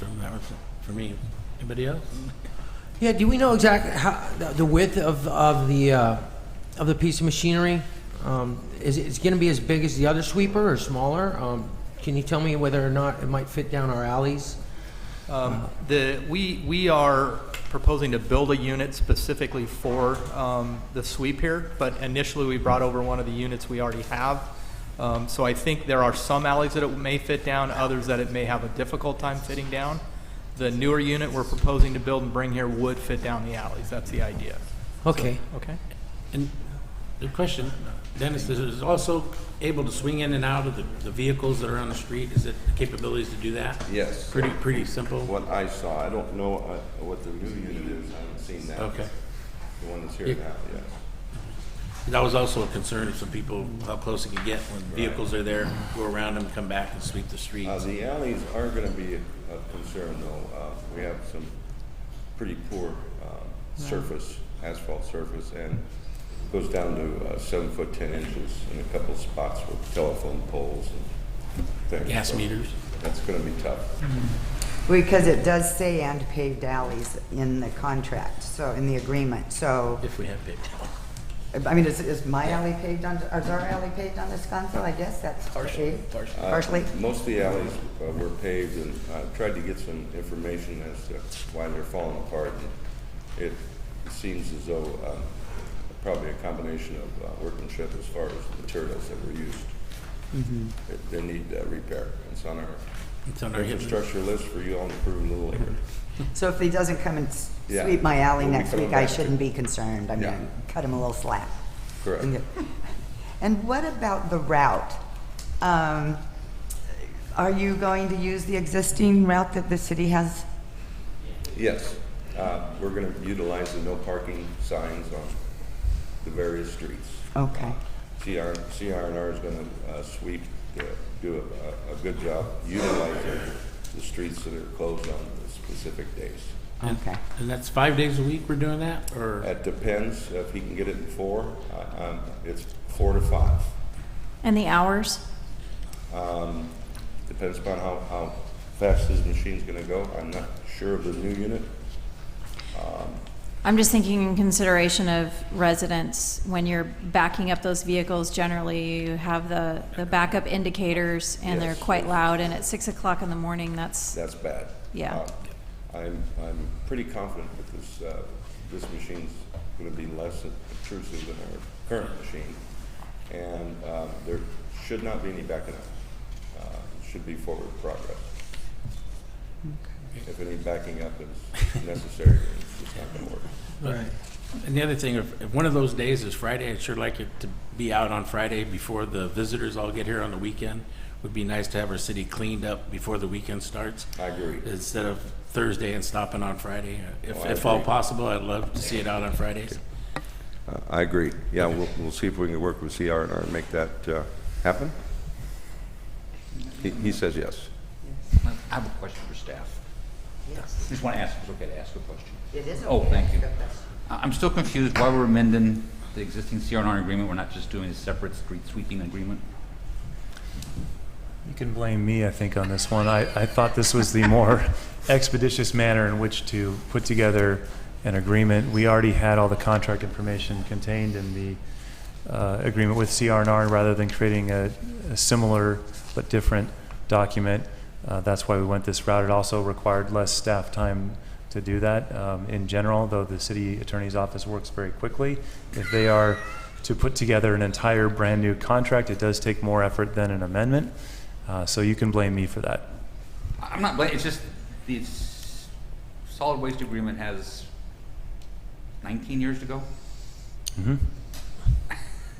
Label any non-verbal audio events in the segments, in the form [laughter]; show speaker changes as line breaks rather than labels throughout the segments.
that was for me. Anybody else?
Yeah, do we know exactly how, the- the width of, of the, uh, of the piece of machinery? Um, Is it, it's gonna be as big as the other sweeper or smaller? Um, Can you tell me whether or not it might fit down our alleys?
Um, The, we, we are proposing to build a unit specifically for um, the sweep here, but initially we brought over one of the units we already have. Um, So I think there are some alleys that it may fit down, others that it may have a difficult time fitting down. The newer unit we're proposing to build and bring here would fit down the alleys, that's the idea,
Okay,
okay?
And the question, Dennis, is it also able to swing in and out of the, the vehicles that are on the street? Is it capabilities to do that?
Yes.
Pretty, pretty simple.
What I saw, I don't know uh, what the new unit is, I haven't seen that.
Okay.
The one that's here now, yes.
That was also a concern of some people, how close it could get when vehicles are there, go around them, come back and sweep the
Uh,
streets.
the alleys are gonna be a a concern though, uh, we have some pretty poor, um, surface, asphalt surface, and goes down to, uh, seven foot ten inches in a couple of spots with telephone poles and things.
Gas
So
meters.
That's gonna be tough.
Because it does say and paved alleys in the contract, so, in the agreement, so,
If we have paved.
I mean, is, is my alley paved on, is our alley paved on Descanso? I guess that's
Partially,
paved.
partially.
Uh,
Partially?
Most of the alleys uh, were paved, and I tried to get some information as to why they're falling apart. and It seems as though um, probably a combination of uh, workmanship as far as materials that were used. They- They need uh, repair. It's on our
It's on our hip.
infrastructure list for you all to approve a little later.
So if he doesn't come and s-
Yeah.
sweep my alley
We'll be
next
coming
week, I
back to-
shouldn't be concerned. I
Yeah.
mean, cut him a little slack.
Correct.
And get- And what about the route? Um, Are you going to use the existing route that the city has?
Yes, uh, we're going to utilize the no parking signs on the various streets.
Okay,
CR, CRNR is gonna uh, sweep, uh, do a, a good job utilizing the streets that are closed on the specific days.
And-
okay.
And that's five days a week we're doing that, or?
That depends, if he can get it in four, I- I'm- it's four to five.
And the hours?
Depends upon how, how fast his machine's gonna go. I'm not sure of the new unit.
I'm just thinking in consideration of residents, when you're backing up those vehicles, generally you have the, the backup indicators and they're
Yes.
quite loud and at six o'clock in the morning, that's,
That's bad.
Yeah.
Uh, I'm, I'm pretty confident that this, uh, this machine's gonna be less intrusive than our current machine. And, um, there should not be any backing up. Uh, it should be forward progress. If any backing up is necessary, it's just not gonna work.
right.
And the other thing, if, if one of those days is Friday, I'd sure like it to be out on Friday before the visitors all get here on the weekend. Would be nice to have our city cleaned up before the weekend starts.
I agree.
Instead of Thursday and stopping on Friday. If,
Oh, I
if all
agree.
possible, I'd love to see it out on Fridays.
I agree. Yeah, we'll, we'll see if we can work with CR and R and make that, uh, happen. He, he says yes.
I have a question for staff. I just want to ask, if it's okay to ask a question.
It is
Oh,
okay.
thank you. I- I'm still confused why we're amending the existing CRNR agreement, we're not just doing a separate street sweeping agreement?
You can blame me, I think, on this one. I, I thought this was the more expeditious manner in which to put together an agreement. We already had all the contract information contained in the uh, agreement with CRNR, rather than creating a, a similar but different document. Uh, that's why we went this route. It also required less staff time to do that um, in general, though the city attorney's office works very quickly. If they are to put together an entire brand new contract, it does take more effort than an amendment. Uh, so you can blame me for that.
I- I'm not blaming, it's just the s- solid waste agreement has 19 years to go?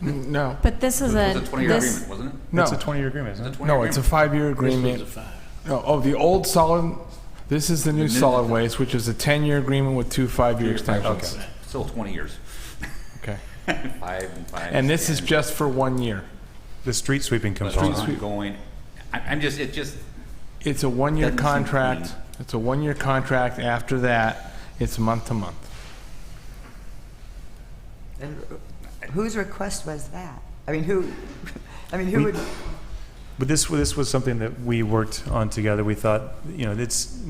No,
but this is
It
a,
was a 20-year
this,
agreement, wasn't it?
no,
It's a 20 year agreement, isn't
It was
it?
a 20-year
no, it's a
agreement.
five-year
This
agreement.
was a five.
No, oh, the old solid, this is the new
The new-
solid waste, which is a 10-year agreement with two five-year
Two-year five-
extensions.
Still 20 years. [laughs]
Okay.
Five and five.
And this is
ten.
just for one year.
The street sweeping
But
comes
it's
on.
ongoing. I- I'm just, it just,
It's a one-year
Doesn't seem
contract.
clean.
It's a one-year contract. After that, it's month to month.
And Whose request was that? I mean, who, [laughs] I mean, who
We-
would?
But this, this was something that we worked on together. We thought, you know, it's